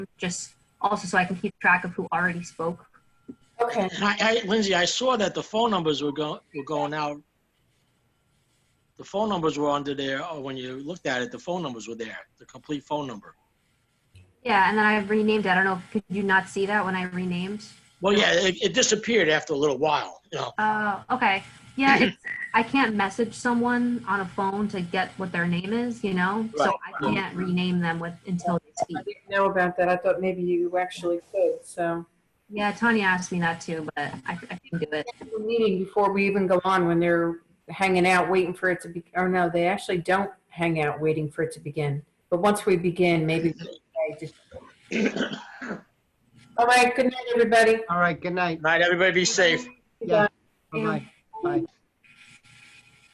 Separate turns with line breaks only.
just also so I can keep track of who already spoke.
Okay,
And I, I, Lindsay, I saw that the phone numbers were going, were going out. The phone numbers were under there, or when you looked at it, the phone numbers were there, the complete phone number.
Yeah, and then I renamed it. I don't know, could you not see that when I renamed?
Well, yeah, it, it disappeared after a little while, you know.
Oh, okay. Yeah, it's, I can't message someone on a phone to get what their name is, you know? So I
Right.
can't rename them with, until they
I
speak.
didn't know about that. I thought maybe you actually could, so.
Yeah, Tanya asked me that too, but I, I can do it.
Schedule a Meeting before we even go on when they're hanging out, waiting for it to be, or no, they actually don't hang out waiting for it to begin. But once we begin, maybe. we can just- All right, good night, everybody.
All right, good night.
Night, everybody be safe.
Yeah, bye-bye. Bye.